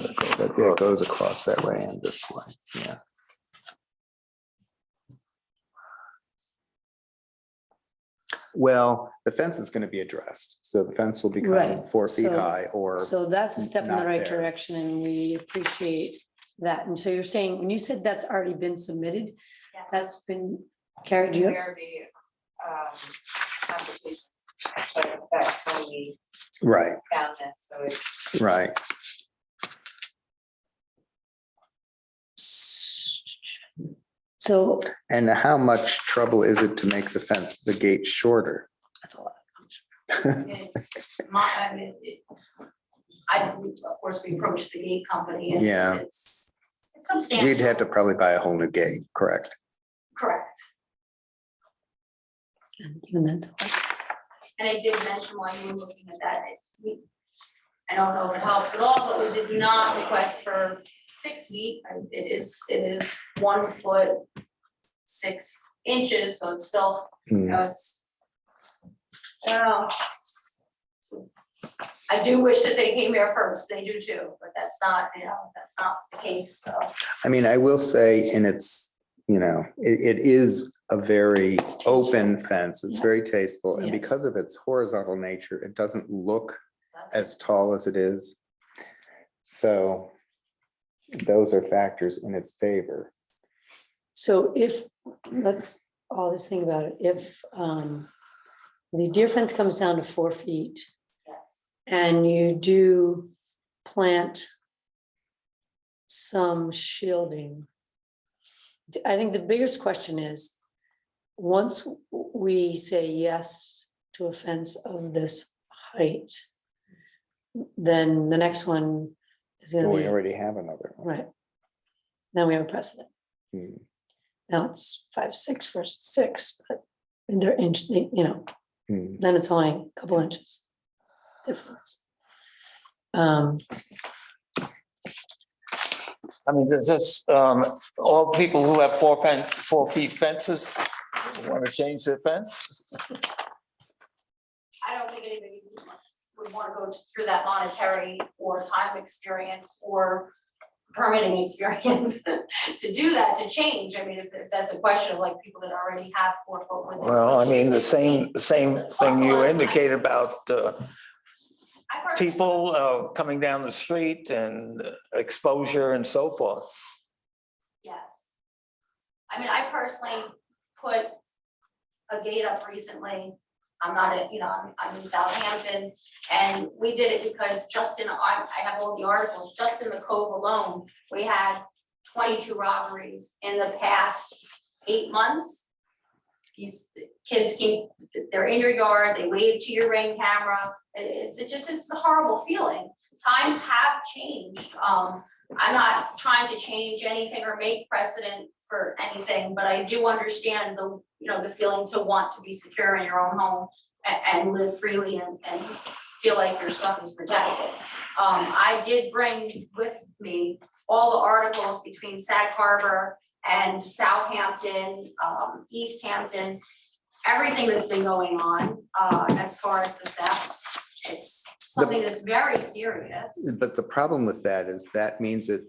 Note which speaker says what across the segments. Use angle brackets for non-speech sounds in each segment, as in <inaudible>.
Speaker 1: yeah, it goes across that way and this way, yeah. Well, the fence is gonna be addressed, so the fence will become
Speaker 2: Right,
Speaker 1: four feet
Speaker 2: so-
Speaker 1: high or,
Speaker 2: So that's a step in the
Speaker 1: not
Speaker 2: right
Speaker 1: there.
Speaker 2: direction and we appreciate that. And so you're saying, when you said that's already been submitted,
Speaker 3: Yes.
Speaker 2: that's been carried you.
Speaker 3: Where the, um, application, but that's when we
Speaker 1: right,
Speaker 3: found that, so it's,
Speaker 1: right.
Speaker 2: So
Speaker 1: And how much trouble is it to make the fence, the gate shorter?
Speaker 2: that's a lot.
Speaker 3: it's my, I mean, it. I, of course, we approached the gate company and
Speaker 1: Yeah.
Speaker 3: it's, it's substantial.
Speaker 1: We'd have to probably buy a whole new gate, correct?
Speaker 3: Correct.
Speaker 2: And Even that's, a lot.
Speaker 3: And I did mention while you were looking at that, it- we, I don't know if it helps at all, but we did not request for six feet. And It is, it is one foot, six inches, so it's still, you
Speaker 1: Hmm,
Speaker 3: know, it's. I don't know. I do wish that they came here first, they do too, but that's not, you know, that's not the case, so.
Speaker 1: I mean, I will say, and it's, you know, it, it is a very open fence. It's
Speaker 2: Yeah.
Speaker 1: very tasteful. And
Speaker 2: Yes.
Speaker 1: because of its horizontal nature, it doesn't look as tall as it is. So those are factors in its favor.
Speaker 2: so if, let's all this thing about it, if um the deer fence comes down to four feet
Speaker 3: Yes,
Speaker 2: and you do plant some shielding. D- I think the biggest question is, once w- we say yes to a fence of this height, then the next one is
Speaker 1: But
Speaker 2: gonna
Speaker 1: we
Speaker 2: be,
Speaker 1: already have another one.
Speaker 2: right? Now we have a precedent.
Speaker 1: Hmm.
Speaker 2: Now it's five, six versus six, but they're inch, you know,
Speaker 1: Hmm.
Speaker 2: then it's only a couple inches difference. Um,
Speaker 4: I mean, does this, um, all people who have four fen, four feet fences want to change their fence?
Speaker 3: I don't think anybody would wanna go through that monetary or time experience or permitting experience <laughs> to do that, to change, I mean, if, if that's a question of like people that already have four foot with.
Speaker 4: Well, I mean, the same, same thing you indicate about, uh, people, uh, coming down the street and exposure and so forth.
Speaker 3: Yes. I mean, I personally put a gate up recently. I'm not, in- you know, I'm, I'm in Southampton, and we did it because just in, I, I have all the articles, just in the Cove alone, we had twenty-two robberies in the past eight months. These kids keep, they're in your yard, they wave to your ring camera, It- it's, it just, it's a horrible feeling. Times have changed, um, I'm not trying to change anything or make precedent for anything, but I do understand the, you know, the feeling to want to be secure in your own home a- and, live freely and, and feel like your stuff is protected. Um, I did bring with me all the articles between Sag Harbor and Southampton, um, East Hampton, everything that's been going on, uh, as far as the theft. It's something that's very serious.
Speaker 1: But the problem with that is that means that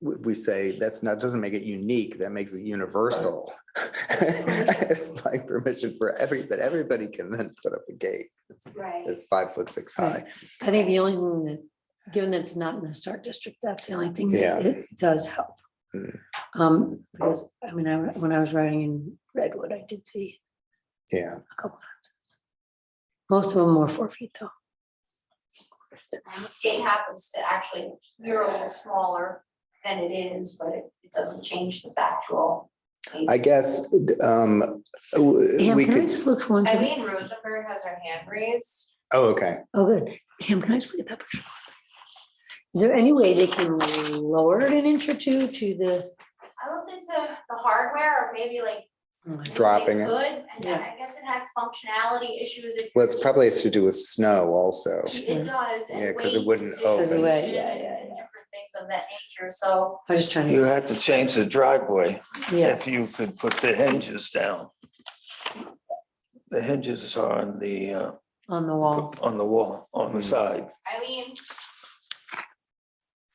Speaker 1: we, we say that's not, doesn't make it unique, that makes it universal. <laughs> It's like permission for every, but everybody can then put up a gate. It's-
Speaker 3: Right.
Speaker 1: It's five foot six high.
Speaker 2: I think the only thing that, given that it's not in the historic district, that's the only thing
Speaker 1: Yeah.
Speaker 2: that it does help.
Speaker 1: Mm.
Speaker 2: Um, because, I mean, I, when I was riding in Redwood, I did see
Speaker 1: Yeah,
Speaker 2: a couple fences. Most of them were four feet tall.
Speaker 3: And this gate happens to actually, you're a little smaller than it is, but it it doesn't change the factual.
Speaker 1: I guess, um, w-
Speaker 2: Ham,
Speaker 1: we
Speaker 2: can I
Speaker 1: could,
Speaker 2: just look for one second?
Speaker 3: Eileen Rosenberg has her hand raised.
Speaker 1: oh, okay.
Speaker 2: Oh, good. Ham, can I just get that picture? one second? Is there any way they can lower it an inch or two to the?
Speaker 3: I looked into the hardware or maybe like.
Speaker 2: oh my God.
Speaker 1: Dropping it.
Speaker 3: Good, and then
Speaker 2: Yeah.
Speaker 3: I guess it has functionality issues. if
Speaker 1: Well, it's probably has to do with snow also.
Speaker 3: It does. and
Speaker 1: Yeah, 'cause it
Speaker 3: weight
Speaker 1: wouldn't
Speaker 2: open.
Speaker 3: distribution
Speaker 2: Weight, yeah, yeah,
Speaker 3: and Different things of that nature, so.
Speaker 2: I'm just trying
Speaker 4: You
Speaker 2: to,
Speaker 4: have to change the driveway
Speaker 2: yeah,
Speaker 4: if you could put the hinges down. The hinges are on the, uh,
Speaker 2: on the wall.
Speaker 4: on the wall, on the side.
Speaker 3: Eileen.